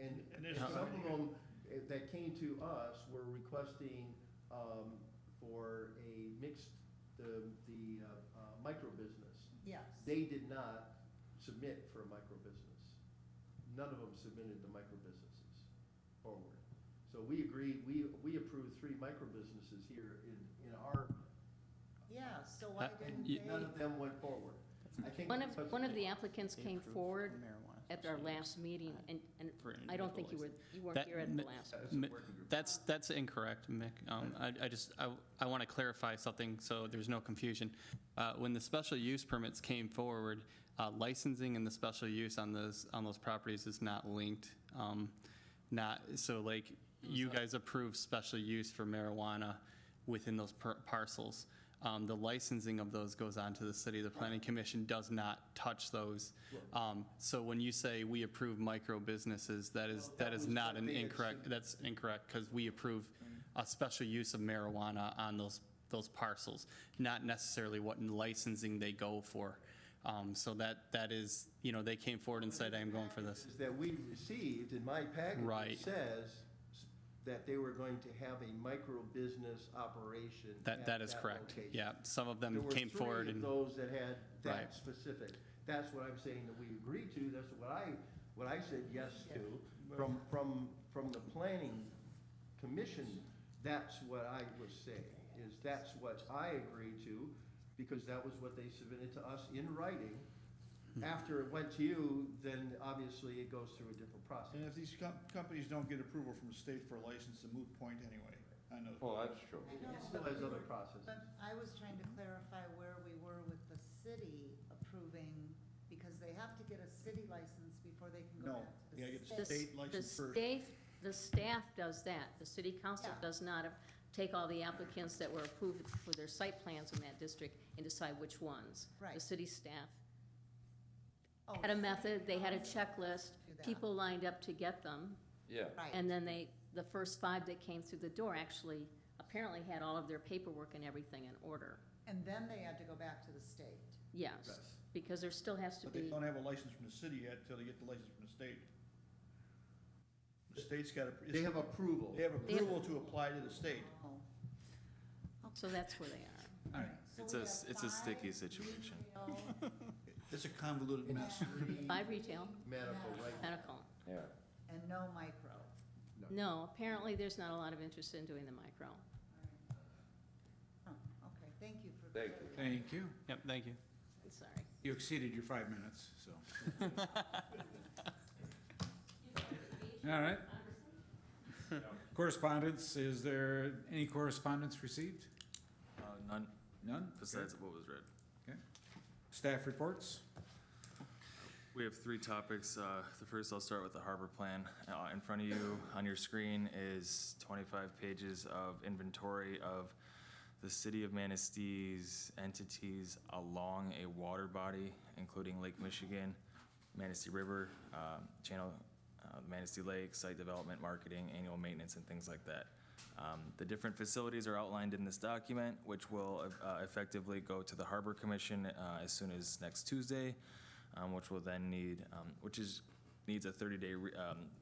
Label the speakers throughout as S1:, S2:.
S1: And, and
S2: And there's
S1: some of
S2: gotta
S1: them eh, that came to us were requesting, um, for a mixed, the, the, uh, uh, micro business.
S3: Yes.
S1: They did not submit for a micro business. None of them submitted the micro businesses forward. So we agreed, we, we approved three micro businesses here in, in our,
S3: Yeah, so why
S4: Uh,
S3: didn't
S4: you-
S3: they?
S1: none of them went forward. I think
S5: One
S1: because-
S5: of, one of the applicants came forward at our last meeting, and,
S4: For
S5: and I don't think you were, you weren't
S4: That-
S5: here at the
S4: mi-
S5: last.
S4: mi- That's, that's incorrect, Mick. Um, I, I just, I, I want to clarify something so there's no confusion. Uh, When the special use permits came forward, uh, licensing and the special use on those, on those properties is not linked. Um, Not, so like, you guys approved special use for marijuana within those par- parcels. Um, The licensing of those goes on to the city. The planning commission does not touch those. Um, So when you say we approve micro businesses, that is,
S1: Well, that
S4: that is
S1: was
S4: not an
S1: something that
S4: incorrect,
S1: should-
S4: that's incorrect, because we approve a special use of marijuana on those, those parcels, not necessarily what licensing they go for. Um, So that, that is, you know, they came forward and said, I am going for this.
S1: is that we received in my package. it
S4: Right.
S1: Says that they were going to have a micro business operation.
S4: That,
S1: at
S4: that is correct.
S1: location.
S4: Yeah, some of
S1: There
S4: them
S1: were
S4: came forward
S1: three of
S4: and.
S1: those that had that
S4: Right.
S1: specific. That's what I'm saying that we agreed to, that's what I, what I said yes to. From, from, from the planning commission, that's what I was saying, is that's what I agreed to, because that was what they submitted to us in writing.
S4: Hmm.
S1: After it went to you, then obviously it goes through a different
S2: And
S1: process.
S2: if these com- companies don't get approval from the state for a license, a moot point anyway. I know.
S6: Well, that's true.
S3: I know,
S1: It still
S3: but we
S1: has other
S3: were-
S1: processes.
S3: But I was trying to clarify where we were with the city approving, because they have to get a city license before they can go
S2: No,
S3: back to
S2: you gotta
S3: the
S2: get
S5: The s-
S3: state.
S2: state license
S5: The
S2: first.
S5: state, the staff does that. The city council
S3: Yeah.
S5: does not take all the applicants that were approved for their site plans in that district and decide which ones. The
S3: Right.
S5: city staff
S3: Oh,
S5: had a
S3: city
S5: method, they had a
S3: council.
S5: checklist,
S3: Do that.
S5: people lined up to get them.
S6: Yeah.
S3: Right.
S5: And then they, the first five that came through the door actually apparently had all of their paperwork and everything in order.
S3: And then they had to go back to the state.
S5: Yes,
S1: Yes.
S5: because there still has to
S2: But they
S5: be,
S2: don't have a license from the city yet until they get the license from the state. The state's got to.
S1: They have approval.
S2: They have approval to apply to the state.
S3: Oh.
S5: so that's where they are.
S3: So
S7: It's
S3: we
S7: a-
S3: have
S7: it's a sticky
S3: five
S7: situation.
S3: retail
S2: It's a convoluted mess.
S5: Five retail,
S1: Medical, right?
S5: medical.
S6: Yeah.
S3: And no micro.
S5: No, apparently there's not a lot of interest in doing the micro.
S3: Oh, okay, thank you for.
S6: Thank you.
S7: Thank you.
S4: Yep, thank you.
S5: I'm sorry.
S7: You exceeded your five minutes, so. All right. Correspondence, is there any correspondence received?
S8: Uh, None
S7: None?
S8: besides what was read.
S7: Okay. Staff reports?
S8: We have three topics. Uh, The first, I'll start with the harbor plan. Uh, In front of you, on your screen, is 25 pages of inventory of the city of Manistee's entities along a water body, including Lake Michigan, Manistee River, um, Channel, uh, Manistee Lake, site development, marketing, annual maintenance, and things like that. Um, The different facilities are outlined in this document, which will uh, effectively go to the Harbor Commission uh, as soon as next Tuesday, um, which will then need, um, which is, needs a 30-day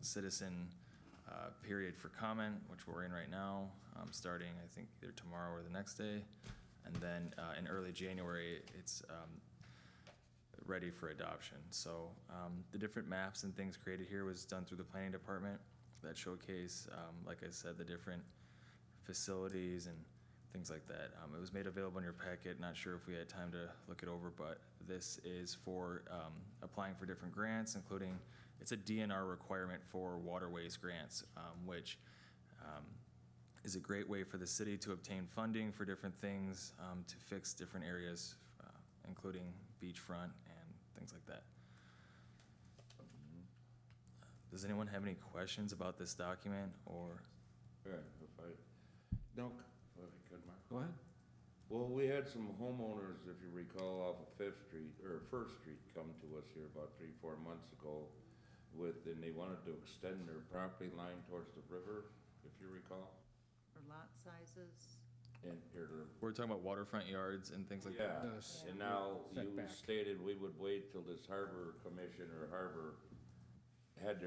S8: citizen uh, period for comment, which we're in right now, um, starting, I think, either tomorrow or the next day. And then uh, in early January, it's um, ready for adoption. So um, the different maps and things created here was done through the planning department that showcase, um, like I said, the different facilities and things like that. Um, It was made available in your packet, not sure if we had time to look it over, but this is for um, applying for different grants, including, it's a DNR requirement for waterways grants, um, which um, is a great way for the city to obtain funding for different things, um, to fix different areas, uh, including beachfront and things like that.
S6: Mm-hmm.
S8: Does anyone have any questions about this document or?
S6: Yeah, if I, no, if I could, Mark.
S7: Go ahead.
S6: Well, we had some homeowners, if you recall, off of Fifth Street, or First Street, come to us here about three, four months ago with, and they wanted to extend their property line towards the river, if you recall,
S3: For lot sizes.
S6: and, or
S8: We're talking about waterfront yards and things like that.
S6: Yeah,
S7: Does
S6: and now you
S7: setback.
S6: stated we would wait till this harbor commission or harbor had their